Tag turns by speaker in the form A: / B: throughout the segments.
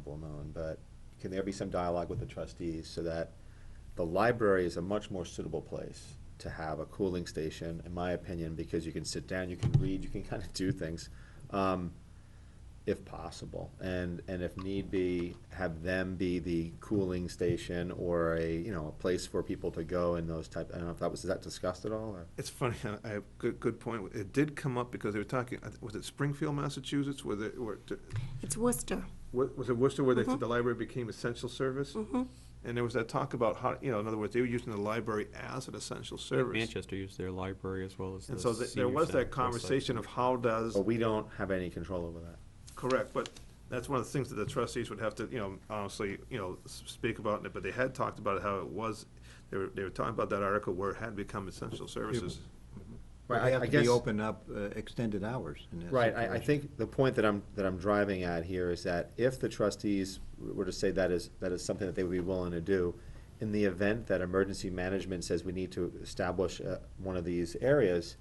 A: principal alone, but can there be some dialogue with the trustees so that the library is a much more suitable place to have a cooling station, in my opinion, because you can sit down, you can read, you can kind of do things, um, if possible. And, and if need be, have them be the cooling station or a, you know, a place for people to go and those type, I don't know if that was, is that discussed at all or?
B: It's funny, I, I- good, good point. It did come up because they were talking, was it Springfield, Massachusetts, where they, where,
C: It's Worcester.
B: wa- was it Worcester where they said the library became essential service? And there was that talk about how, you know, in other words, they were using the library as an essential service.
D: Manchester used their library as well as the
B: And so th- there
D: senior
B: was
D: center,
B: that
D: so it's like-
B: conversation of how does,
A: But we don't have any control over that.
B: correct, but that's one of the things that the trustees would have to, you know, honestly, you know, s- speak about, it. but they had talked about how it was, they were, they were talking about that article where it had become essential services.
A: Right,
E: But
A: I-
E: They have
A: I
E: to
A: guess-
E: be open up uh, extended hours in that
A: Right, I, I
E: situation.
A: think the point that I'm, that I'm driving at here is that if the trustees were to say that is, that is something that they would be willing to do, in the event that emergency management says we need to establish, uh, one of these areas,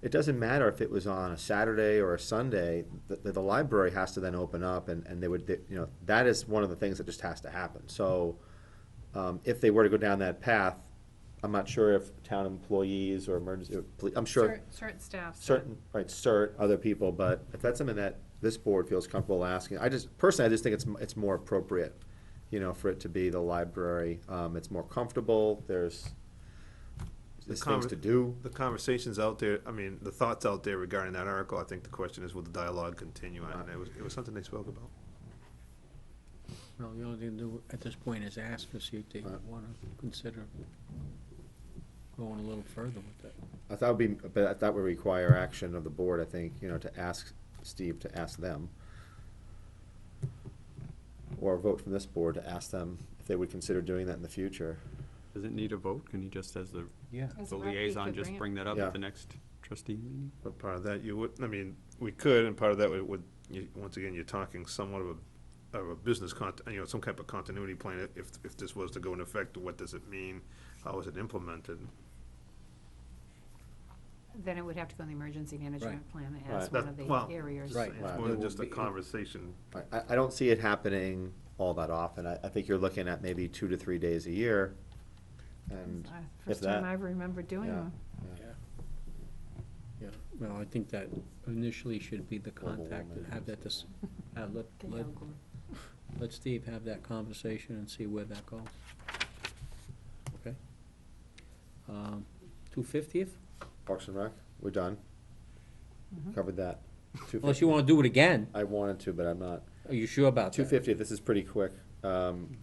A: it doesn't matter if it was on a Saturday or a Sunday, the, the, the library has to then open up and, and they would, they- you know, that is one of the things that just has to happen. So, um, if they were to go down that path, I'm not sure if town employees or emergency, or poli- I'm sure
F: Cer- Certain staff. said-
A: certain, right, cert, other people, but if that's something that this board feels comfortable asking, I just, personally, I just think it's, m- it's more appropriate, you know, for it to be the library, um, it's more comfortable, there's, there's things
B: conver-
A: to do.
B: The conversations out there, I mean, the thoughts out there regarding that article, I think the question is, will the dialogue continue? And it was, it was something they spoke about.
G: Well, the only thing to do at this point is ask to see if they
A: Right.
G: want to consider going a little further with that.
A: I thought would be, but that would require action of the board, I think, you know, to ask Steve, to ask them. Or a vote from this board to ask them if they would consider doing that in the future.
D: Does it need a vote? Can you just, as the
G: Yeah.
F: As
D: the
F: a rep, you
D: liaison,
F: could
D: just
F: it.
D: bring that up
A: Yeah.
D: at the next trustee meeting?
B: But part of that, you would, I mean, we could, and part of that would- would, you, once again, you're talking somewhat of a, of a business cont, you know, some type of continuity plan. If- If, if this was to go into effect, what does it mean? How is it implemented?
F: Then it would have to go in the emergency management plan as
A: Right.
F: one
B: That-
F: of
B: well,
F: the areas.
G: Right.
B: It's
A: Wow.
B: more
G: It
B: than
G: will
B: just a
G: be-
B: conversation.
A: I- I, I don't see it happening all that often. I, I think you're looking at maybe two to three days a year. And
F: Uh,
A: if
F: First time I
A: that,
F: remember doing
A: Yeah.
F: them.
G: Yeah, well, I think that initially should be the
A: Global
G: contact,
A: warming.
G: have that, dis- uh, let,
F: They
G: let,
F: all go.
G: let Steve have that conversation and see where that goes. Okay? Um, two fiftieth?
A: Parks and Rec, we're done.
F: Mm-hmm.
A: Covered that. Two
G: Unless
A: fifty,
G: you want to do it again,
A: I wanted to, but I'm not.
G: are you sure about
A: Two
G: that?
A: fifty, this is pretty quick. Um,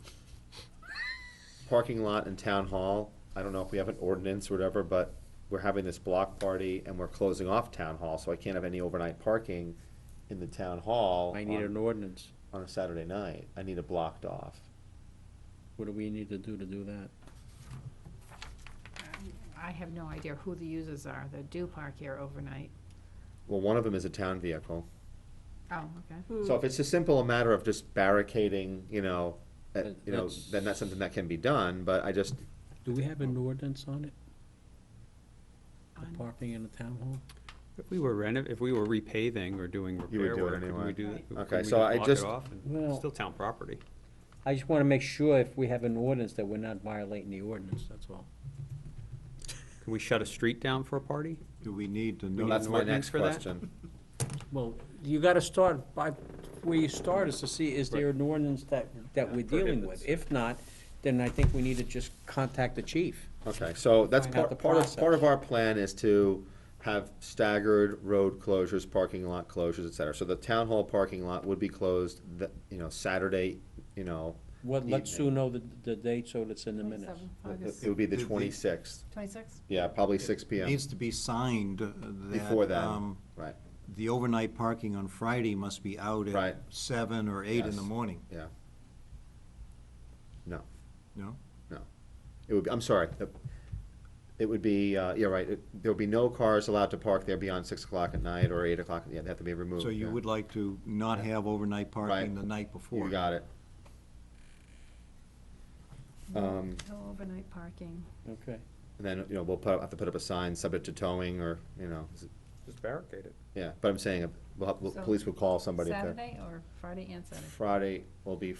A: Parking lot and town hall, I don't know if we have an ordinance or whatever, but we're having this block party and we're closing off town hall, so I can't have any overnight parking in the town hall
G: I need an
A: on,
G: ordinance.
A: on a Saturday night. I need it blocked off.
G: What do we need to do to do that?
F: I have no idea who the users are that do park here overnight.
A: Well, one of them is a town vehicle.
F: Oh, okay.
A: So if it's a simple matter of just barricading, you know, uh,
G: That-
A: you know,
G: that's-
A: then that's something that can be done, but I just,
G: Do we have an ordinance on it,
F: On-
G: the parking in the town hall?
D: If we were renov, if we were repaving or doing
A: You would
D: repair
A: do it
D: work, could
A: anyway.
D: we do that?
F: Right.
D: Could
A: Okay,
D: we
A: so I
D: block it
A: just-
D: off and-
G: Well-
D: Still town property.
G: I just want to make sure if we have an ordinance that we're not violating the ordinance, that's all.
D: Can we shut a street down for a party?
E: Do we need to
A: well,
E: know?
A: that's my
D: ordinance
A: next
D: for that?
A: question.
G: Well, you got to start by, where you start is to see, is there an ordinance that, that we're dealing with? If not, then I think we need to just contact the chief.
A: Okay, so that's
G: Find out
A: part,
G: the
A: part of,
G: process.
A: part of our plan is to have staggered road closures, parking lot closures, et cetera. So the town hall parking lot would be closed, the, you know, Saturday, you know,
G: What, let Sue
A: Evening.
G: know the, the date so that it's in the minutes.
A: it
F: 27th August.
A: it would be the
B: The- the-
A: twenty-sixth.
F: 26?
A: Yeah, probably six P M,
E: Needs to be signed uh, that.
A: before then,
E: um,
A: right,
E: The overnight parking on Friday must be out
A: Right.
E: at seven or eight in
A: Yes.
E: the morning,
A: yeah. No.
E: no?
A: No. It would, be I'm sorry, the- it would be, uh, yeah, right, it- there would be no cars allowed to park there beyond six o'clock at night or eight o'clock, yeah, they have to be removed.
E: So you
A: yeah.
E: would like to not have overnight
A: Right.
E: parking the night before?
A: You got it. Um,
F: No overnight parking.
G: Okay.
A: and then, you know, we'll put, up- have to put up a sign subject to towing or, you know, is it-
D: Just barricade it.
A: yeah, but I'm saying, uh, we'll, have- we'll-
F: So,
A: police would call somebody if they're.
F: Saturday or Friday and Saturday?
A: Friday will be